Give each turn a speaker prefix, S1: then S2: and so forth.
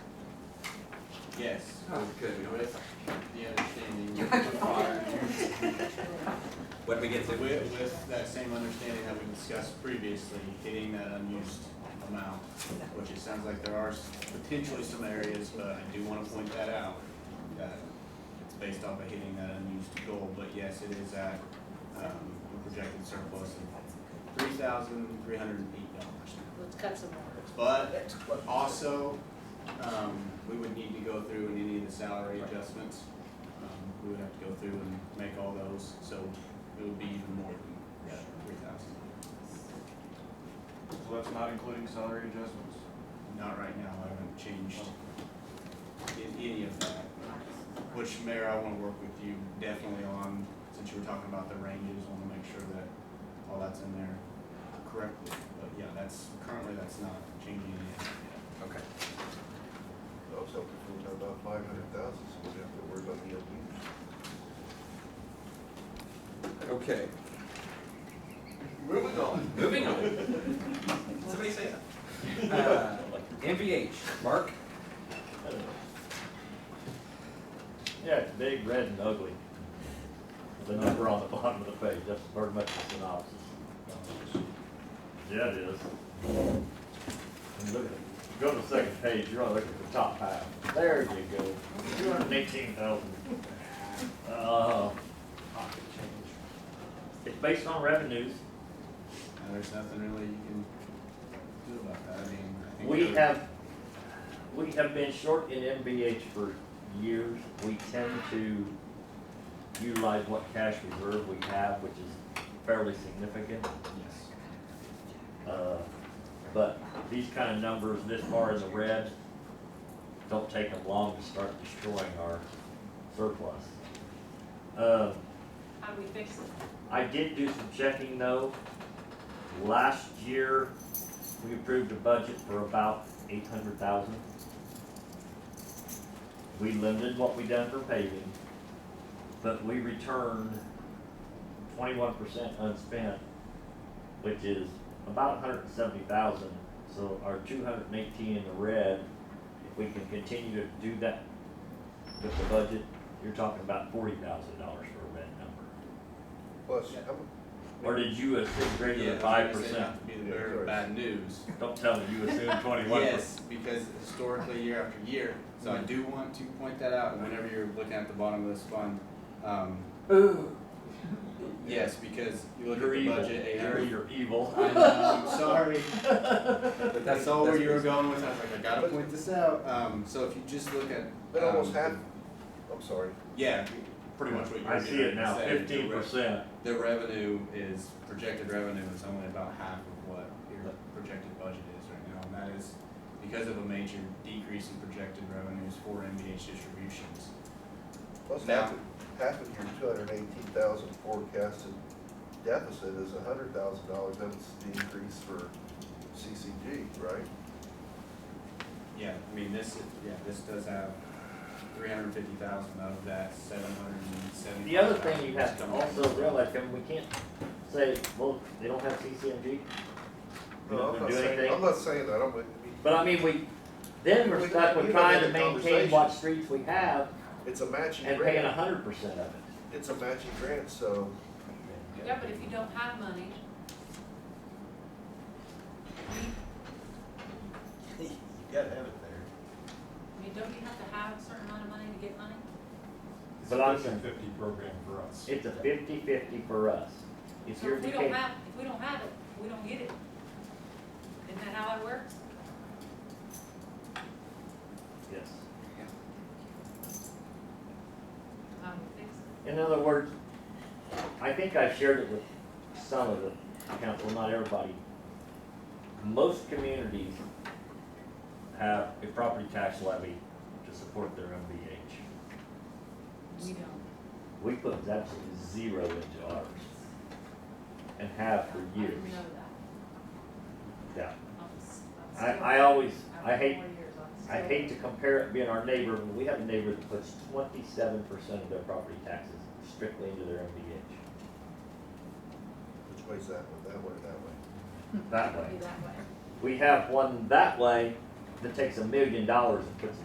S1: Yes,
S2: Okay,
S1: with the understanding that the prior,
S2: what did we get to?
S1: with, with that same understanding that we discussed previously, hitting that unused amount, which it sounds like there are s- potentially some areas, but I do wanna point that out, that it's based off of hitting that unused goal, but yes, it is at, um, a projected surplus of three thousand three hundred and eight dollars.
S3: Let's cut some more.
S1: But also, um, we would need to go through in any of the salary adjustments. Um, We would have to go through and make all those, so it would be even more than three thousand.
S4: So that's not including salary adjustments?
S1: Not right now, I haven't changed in any of that. Which, Mayor, I wanna work with you definitely on, since you were talking about the ranges, wanna make sure that all that's in there correctly. But yeah, that's, currently that's not changing any of that.
S2: Okay.
S5: I was hoping for about five hundred thousand, so we'd have to worry about the LD.
S2: Okay. Moving on. Moving on. Somebody say that. Uh, MVH, Mark?
S6: Yeah, it's big, red, and ugly. The number on the bottom of the page, that's pretty much the synopsis. Yeah, it is. And look at, go to the second page, you're only looking at the top half. There you go, two hundred and eighteen thousand. Uh, it's based on revenues.
S1: And there's nothing really you can do about that, I mean, I think.
S6: We
S1: that-
S6: have, we have been short in MBH for years. We tend to utilize what cash reserve we have, which is fairly significant.
S1: Yes.
S6: Uh, But these kind of numbers this far in the red, don't take them long to start destroying our surplus. Uh,
S3: How do we fix it?
S6: I did do some checking though. Last year, we approved a budget for about eight hundred thousand. We limited what we done for paving, but we returned twenty-one percent unspent, which is about hundred and seventy thousand. So our two hundred and eighteen in the red, if we can continue to do that with the budget, you're talking about forty thousand dollars for a red number.
S5: Plus, how mu-
S6: Or did you assume greater
S1: Yeah,
S6: than
S1: I
S6: five
S1: was gonna say
S6: percent?
S1: not to Be the bearer of bad news.
S6: Don't tell me you assumed twenty-one percent.
S1: Yes, because historically, year after year, so I do want to point that out, whenever you're looking at the bottom of this fund, um,
S6: Ooh.
S1: yes, because you look at
S6: You're
S1: the
S6: evil.
S1: budget, eight
S6: You're,
S1: hundred.
S6: you're evil.
S1: I know, I'm sorry.
S2: But
S1: That's all where you were
S2: reason-
S1: going with, I was like, I gotta point this out, um, so if you just look at.
S5: but almost
S1: um,
S5: half, I'm sorry,
S1: Yeah, pretty much what you were
S6: I see it now,
S1: saying, the
S6: fifteen
S1: re-
S6: percent.
S1: The revenue is, projected revenue is only about half of what your projected budget is right now, and that is because of a major decrease in projected revenues for MBH distributions.
S5: plus
S1: Now-
S5: half, of- half of your two hundred and eighteen thousand forecasted deficit is a hundred thousand dollars, that's the increase for CCG, right?
S1: Yeah, I mean, this, is- yeah, this does have three hundred and fifty thousand of that seven hundred and seventy.
S6: The other thing you have to also realize, Kevin, we can't say, well, they don't have CCMG. We
S5: No,
S6: don't
S5: I'm not
S6: do
S5: saying, I'm
S6: anything.
S5: not saying that, I'm, I mean,
S6: But I mean, we, then we're
S5: We-
S6: stuck
S5: we
S6: with
S5: don't have
S6: trying to
S5: the
S6: maintain what streets we have
S5: it's a matching
S6: and paying a
S5: grant,
S6: hundred percent of it.
S5: it's a matching grant, so
S3: Yeah, but if you don't have money.
S1: You gotta have it there.
S3: I mean, don't you have to have a certain amount of money to get money?
S6: But I'm saying,
S4: Fifty program for us.
S6: it's a fifty-fifty for us. If
S3: So
S6: you're
S3: if we don't
S6: depending,
S3: have, if we don't have it, we don't get it. Isn't that how it works?
S6: yes.
S3: How do we fix it?
S6: In other words, I think I shared it with some of the council, not everybody. Most communities have a property tax levy to support their MBH.
S3: We don't.
S6: We put absolutely zero into ours and have for
S3: I didn't
S6: years.
S3: know that.
S6: Yeah,
S3: I'm s- I'm
S6: I,
S3: still-
S6: I always,
S3: I've
S6: I
S3: been
S6: hate,
S3: four years, I'm
S6: I
S3: still-
S6: hate to compare it being our neighbor, but we have a neighbor that puts twenty-seven percent of their property taxes strictly into their MBH.
S5: which way's that one, that way or that way?
S6: That
S3: Be
S6: way.
S3: that way.
S6: We have one that way that takes a million dollars and puts it